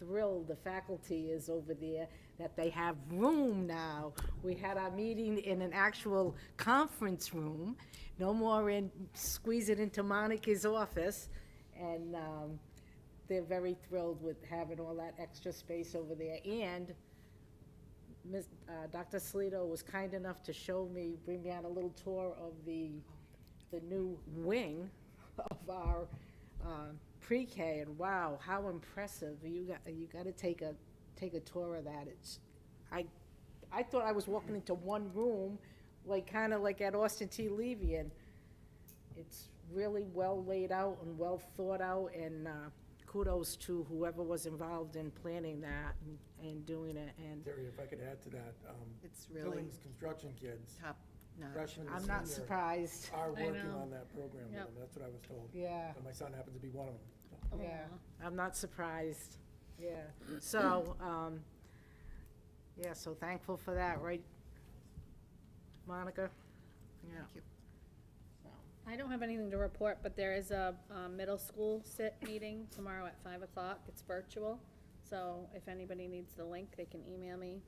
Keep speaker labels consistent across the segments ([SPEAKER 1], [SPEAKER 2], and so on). [SPEAKER 1] thrilled the faculty is over there that they have room now. We had our meeting in an actual conference room, no more in, squeeze it into Monica's office. And, um, they're very thrilled with having all that extra space over there. And Ms., uh, Dr. Salito was kind enough to show me, bring me on a little tour of the, the new wing of our, um, pre-K, and wow, how impressive, you got, you gotta take a, take a tour of that, it's, I, I thought I was walking into one room, like, kinda like at Austin T. Levy, and it's really well laid out and well thought out, and, uh, kudos to whoever was involved in planning that and, and doing it, and
[SPEAKER 2] Terry, if I could add to that, um,
[SPEAKER 3] It's really
[SPEAKER 2] Billings Construction Kids,
[SPEAKER 3] top notch.
[SPEAKER 2] freshman
[SPEAKER 1] I'm
[SPEAKER 2] and
[SPEAKER 1] not
[SPEAKER 2] senior,
[SPEAKER 1] surprised,
[SPEAKER 2] are
[SPEAKER 4] I
[SPEAKER 2] working
[SPEAKER 4] know.
[SPEAKER 2] on that program with
[SPEAKER 4] Yep.
[SPEAKER 2] them. That's what I was told.
[SPEAKER 1] yeah.
[SPEAKER 2] And my son happens to be one of them. so.
[SPEAKER 1] Yeah, I'm not surprised, yeah. So, um, yeah, so thankful for that, right, Monica? Yeah.
[SPEAKER 3] Thank you.
[SPEAKER 4] I don't have anything to report, but there is a um, middle school sit meeting tomorrow at five o'clock. It's virtual. So if anybody needs the link, they can email me.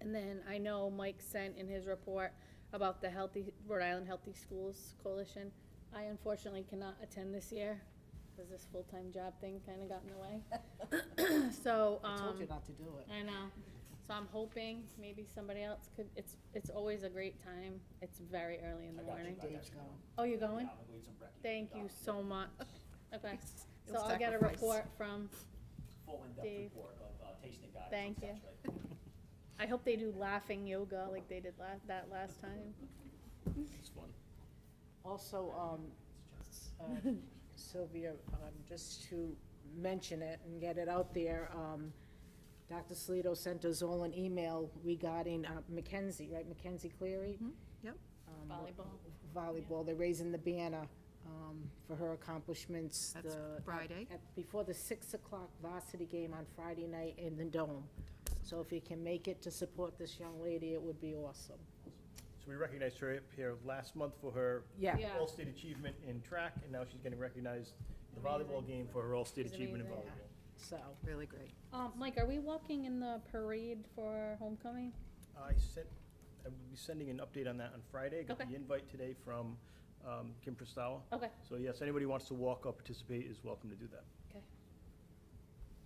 [SPEAKER 4] And then I know Mike sent in his report about the Healthy, Rhode Island Healthy Schools Coalition. I unfortunately cannot attend this year because this full-time job thing kind of got in the way. So, um.
[SPEAKER 1] I told you not to do it.
[SPEAKER 4] I know. So I'm hoping maybe somebody else could, it's, it's always a great time. It's very early in the
[SPEAKER 5] I got you,
[SPEAKER 4] morning.
[SPEAKER 5] I got
[SPEAKER 1] Dave's
[SPEAKER 5] you.
[SPEAKER 1] going.
[SPEAKER 4] Oh, you
[SPEAKER 5] Yeah,
[SPEAKER 4] going?
[SPEAKER 5] I'm gonna leave some brekkie.
[SPEAKER 4] Thank you
[SPEAKER 5] Doc,
[SPEAKER 4] so much. Okay, so
[SPEAKER 3] You'll
[SPEAKER 4] I'll get a
[SPEAKER 3] sacrifice.
[SPEAKER 4] report from,
[SPEAKER 5] Full in-depth
[SPEAKER 4] Dave.
[SPEAKER 5] report of uh, tasting guides.
[SPEAKER 4] Thank you. I hope they do laughing yoga like they did la- that last time.
[SPEAKER 5] It's fun.
[SPEAKER 1] Also, um, uh, Sylvia, um, just to mention it and get it out there, um, Dr. Salito sent us all an email regarding uh, Mackenzie, right, Mackenzie Cleary?
[SPEAKER 3] yep.
[SPEAKER 1] Um,
[SPEAKER 4] Volleyball.
[SPEAKER 1] Volleyball, they're raising the banner, um, for her accomplishments.
[SPEAKER 3] That's
[SPEAKER 1] the-
[SPEAKER 3] Friday.
[SPEAKER 1] at- Before the six o'clock varsity game on Friday night in the Dome. So if you can make it to support this young lady, it would be awesome.
[SPEAKER 6] So we recognized her up here last month for her
[SPEAKER 1] Yeah.
[SPEAKER 4] Yeah.
[SPEAKER 6] all-state achievement in track, and now she's getting recognized the volleyball game for her all-state
[SPEAKER 4] She's
[SPEAKER 6] achievement in
[SPEAKER 4] amazing.
[SPEAKER 6] volleyball.
[SPEAKER 1] So,
[SPEAKER 3] Really great.
[SPEAKER 4] Um, Mike, are we walking in the parade for homecoming?
[SPEAKER 6] I sent, I will be sending an update on that on Friday. Got
[SPEAKER 4] Okay.
[SPEAKER 6] the invite today from um, Kim Pristawa.
[SPEAKER 4] Okay,
[SPEAKER 6] So yes, anybody who wants to walk or participate is welcome to do that.
[SPEAKER 4] okay.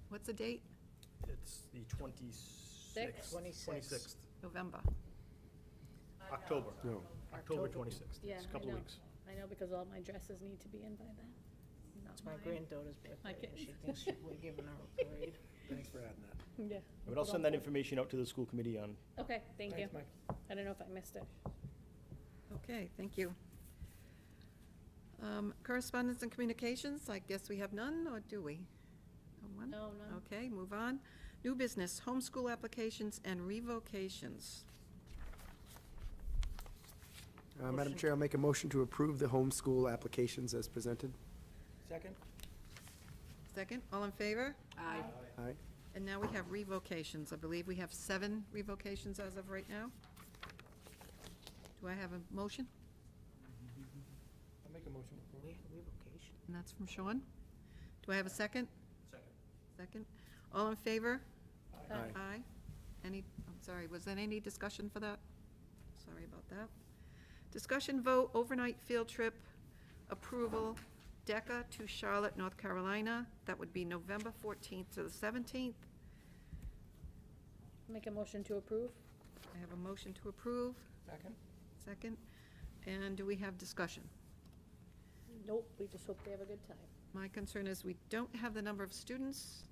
[SPEAKER 3] What's the date?
[SPEAKER 6] It's the twenty-sixth.
[SPEAKER 1] 26th.
[SPEAKER 3] November.
[SPEAKER 6] October. October twenty-sixth.
[SPEAKER 4] Yeah,
[SPEAKER 6] It's a
[SPEAKER 4] I
[SPEAKER 6] couple
[SPEAKER 4] know.
[SPEAKER 6] weeks.
[SPEAKER 4] I know because all my dresses need to be in by then.
[SPEAKER 1] it's my granddaughter's birthday, and she
[SPEAKER 4] kid.
[SPEAKER 1] thinks she- we're giving her a parade.
[SPEAKER 2] Thanks for adding that.
[SPEAKER 4] Yeah.
[SPEAKER 6] But I'll send that information out to the school committee on
[SPEAKER 4] Okay, thank you.
[SPEAKER 2] Thanks, Mike.
[SPEAKER 4] I don't know if I missed it.
[SPEAKER 3] Okay, thank you. Um, Correspondence and communications, I guess we have none, or do we? No one?
[SPEAKER 4] No, no.
[SPEAKER 3] Okay, move on. New business, homeschool applications and revocations.
[SPEAKER 7] Uh, Madam Chair, I'll make a motion to approve the homeschool applications as presented.
[SPEAKER 2] Second?
[SPEAKER 3] Second, all in favor?
[SPEAKER 1] Aye.
[SPEAKER 7] Aye.
[SPEAKER 3] And now we have revocations. I believe we have seven revocations as of right now. Do I have a motion?
[SPEAKER 2] I'll make a motion to approve.
[SPEAKER 1] We had revocation.
[SPEAKER 3] And that's from Sean. Do I have a second?
[SPEAKER 5] Second.
[SPEAKER 3] Second. All in favor?
[SPEAKER 2] Aye.
[SPEAKER 7] Aye.
[SPEAKER 3] Aye. Any, I'm sorry, was there any discussion for that? Sorry about that. Discussion vote, overnight field trip approval, DECA to Charlotte, North Carolina. That would be November 14th to the 17th.
[SPEAKER 4] Make a motion to approve?
[SPEAKER 3] I have a motion to approve,
[SPEAKER 2] Second?
[SPEAKER 3] second. And do we have discussion?
[SPEAKER 4] Nope, we just hope they have a good time.
[SPEAKER 3] My concern is we don't have the number of students,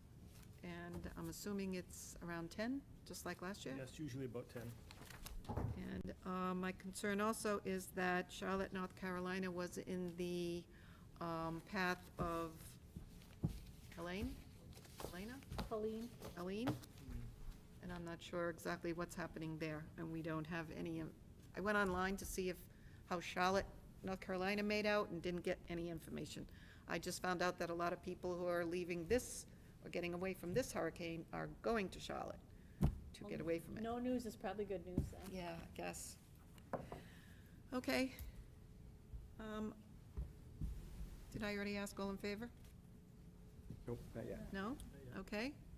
[SPEAKER 3] and I'm assuming it's around 10, just like last year?
[SPEAKER 6] Yes, usually about ten.
[SPEAKER 3] And uh, my concern also is that Charlotte, North Carolina was in the um, path of Elaine, Elena,
[SPEAKER 4] Colleen?
[SPEAKER 3] Elaine? And I'm not sure exactly what's happening there, and we don't have any, um, I went online to see if, how Charlotte, North Carolina made out and didn't get any information. I just found out that a lot of people who are leaving this, or getting away from this hurricane, are going to Charlotte to get away from it.
[SPEAKER 4] No news is probably good news then.
[SPEAKER 3] Yeah, I guess. Okay. Um, Did I already ask all in favor?
[SPEAKER 7] Nope, not yet.
[SPEAKER 3] No? Okay.